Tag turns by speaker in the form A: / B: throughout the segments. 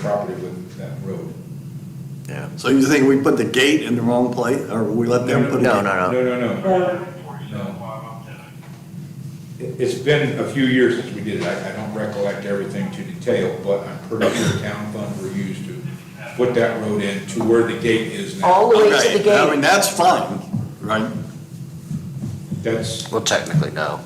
A: property with that road.
B: Yeah.
C: So you think we put the gate in the wrong place, or we let them put it?
B: No, no, no.
A: No, no, no. It- It's been a few years since we did it. I, I don't recollect everything to detail, but I'm pretty sure town funds were used to put that road in to where the gate is
D: All
A: now.
D: the way to
C: Okay,
D: the
C: I mean,
D: gate.
C: that's fine, right?
A: That's,
B: Well, technically, no.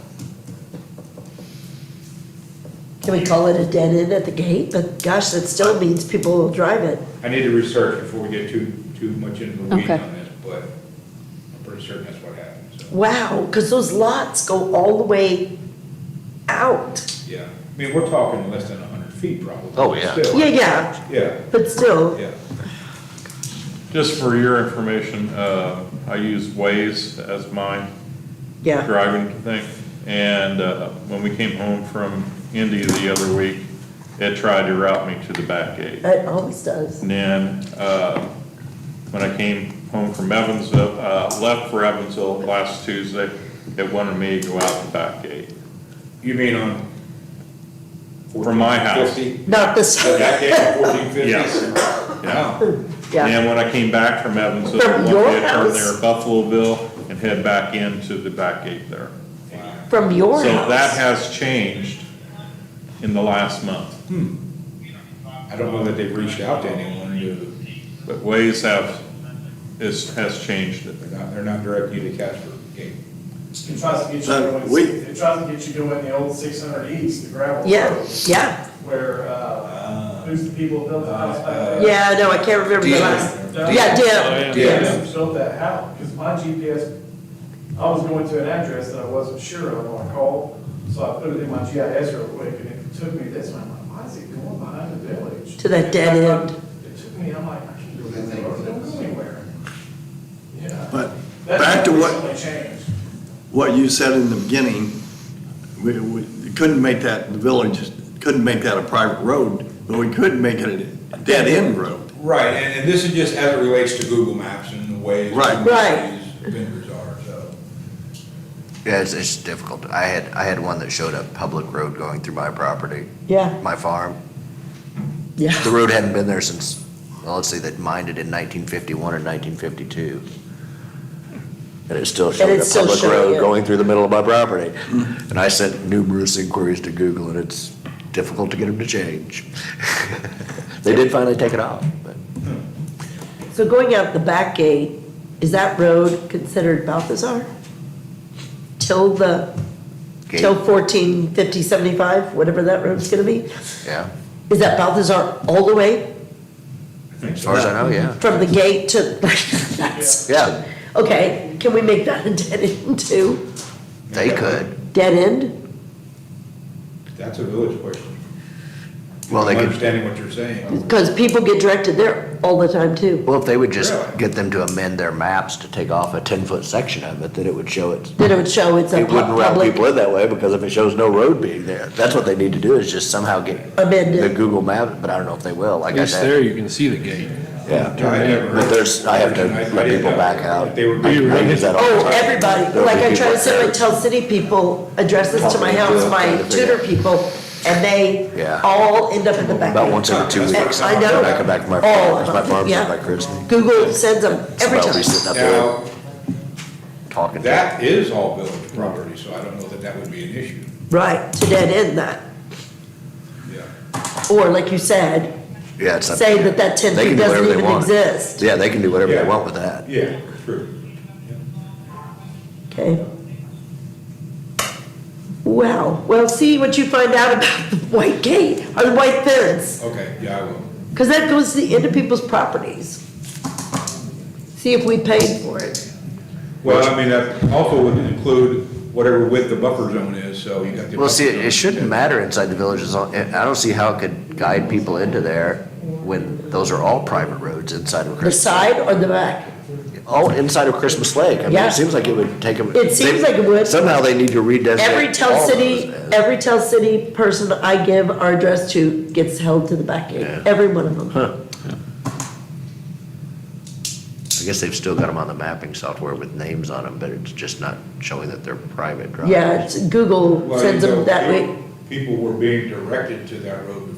D: Can we call it a dead end at the gate? But gosh, that still means people will drive it.
A: I need to research before we get too, too much into the weeds
E: Okay.
A: on this, but I'm pretty certain that's what happened, so,
D: Wow, because those lots go all the way out.
A: yeah. I mean, we're talking less than a hundred feet probably.
B: Oh, yeah.
A: still.
D: Yeah, yeah,
A: Yeah,
D: but still,
A: yeah.
F: Just for your information, uh, I use Waze as my
D: yeah.
F: driving thing. And, uh, when we came home from Indy the other week, it tried to route me to the back gate.
D: It always does.
F: And then, uh, when I came home from Evansville, uh, left for Evansville last Tuesday, it wanted me to go out the back gate
A: You mean on?
F: from my house.
A: 1450?
D: Not this,
A: So that gave you fourteen fifty?
F: Yeah.
A: Wow.
D: yeah.
F: And when I came back from Evansville,
D: From
F: I
D: your
F: wanted to turn
D: house?
F: there at Buffalo and head back into the back gate there.
D: From your
F: So that
D: house.
F: has changed in the last month,
A: I don't know that they've reached out to anyone, to-
F: but Waze have, is, has changed it.
A: they're not, they're not directing you to Casper Gate.
G: It tries to get you
C: Uh,
G: going,
C: we-
G: it tries to get you going the old six hundred east, the gravel
D: Yeah,
G: road,
D: yeah,
G: where, uh, who's the people that built the house back there?
D: yeah, no, I can't remember the
A: Dean.
D: last.
G: Doug?
D: Yeah,
F: Oh, yeah.
D: Deb,
A: Yeah.
D: yeah.
G: Who Built that house, because my GPS, I was going to an address that I wasn't sure of when I called, so I put it in my GIS real quick, and it took me this way, I'm like, why is it going behind the village?
D: To that dead end.
G: It took me, I'm like, I can't go down there, I don't go anywhere. Yeah.
C: But
G: That's
C: back to what,
G: recently changed.
C: what you said in the beginning, we, we couldn't make that, the village couldn't make that a private road, but we could make it a dead-end road.
A: Right, and, and this is just as it relates to Google Maps and the way.
C: Right.
D: Right.
A: Vendors are, so.
B: Yeah, it's, it's difficult. I had, I had one that showed a public road going through my property,
D: Yeah,
B: my farm.
D: yeah.
B: The road hadn't been there since, well, let's say they mined it in nineteen fifty-one or nineteen fifty-two. And it still showed
D: it's
B: a
D: still
B: public
D: showing Mm-hmm.
B: road
D: it.
B: going through the middle of my property. And I sent numerous inquiries to Google and it's difficult to get them to change. They did finally take it off, but.
D: So going out the back gate, is that road considered Balthazar? Till the,
B: gate,
D: till fourteen fifty seventy-five, whatever that road's gonna be?
B: Yeah,
D: Is that Balthazar all the way
B: as far as I know, yeah.
D: from the gate to, that's,
B: Yeah,
D: okay, can we make that a dead end too?
B: they could.
D: Dead end?
A: That's a village question.
B: Well, they
A: I'm
B: could
A: Understanding what you're saying.
D: Because people get directed there all the time too.
B: Well, if they would just
A: Really?
B: get them to amend their maps to take off a ten-foot section of it, then it would show it.
D: Then it would show it's a
B: It wouldn't
D: pu-
B: route people
D: public
B: in that way, because if it shows no road being there, that's what they need to do, is just somehow get the
D: amended.
B: Google map, but I don't know if they will, like
H: At
B: I
H: least
B: said.
H: there you can see the gate.
B: Yeah,
A: I never heard-
B: but there's, I have
A: I-
B: to
A: I
B: let
A: didn't
B: people
A: know.
B: back out.
A: They were-
B: I- I use that all the
D: Oh,
B: time.
D: everybody,
B: There'll
D: like
B: be
D: I try
B: people
D: to sit and
B: there.
D: tell city people, address this to my house, my tutor people, and they
B: Yeah.
D: all end up in the back.
B: About once every two
A: And
B: weeks.
D: I know.
B: When I come back from my
D: All of
B: farm, because my
D: them,
B: farm's
D: yeah.
B: owned by Christie.
D: Google sends them every
B: Somebody'll be
D: time.
B: sitting up there
A: Now,
B: talking to them.
A: that is all village property, so I don't know that that would be an issue,
D: Right, to dead end that.
A: yeah.
D: Or like you said,
B: Yeah, it's up to
D: say
B: them.
D: that that ten feet
B: They can do whatever
D: doesn't
B: they
D: even
B: want.
D: exist,
B: Yeah, they can do whatever
A: Yeah.
B: they want with that.
A: Yeah, true.
D: okay? Wow, well, see what you find out about the white gate, or the white fence,
A: Okay, yeah, I will.
D: because that goes to the end of people's properties. See if we paid for it.
A: Well, I mean, that also would include whatever width the buffer zone is, so you got the.
B: Well, see,
A: buffer
B: it it
A: zone.
B: shouldn't matter inside the village, as long- I don't see how it could guide people into there when those are all private roads inside of
D: The
B: Christmas.
D: side or the back?
B: All inside of Christmas Lake. I mean,
D: Yeah.
B: it seems like it would take them.
D: It seems like it would.
B: Somehow they need to redesignate.
D: Every
B: all
D: Tell
B: those
D: City,
B: as-
D: every Tell City person I give our address to gets held to the back gate,
B: Yeah.
D: every one of them.
B: I guess they've still got them on the mapping software with names on them, but it's just not showing that they're private drives.
D: Yeah, it's- Google
A: Well,
D: sends
A: you know,
D: them that way.
A: people- People were being directed to that road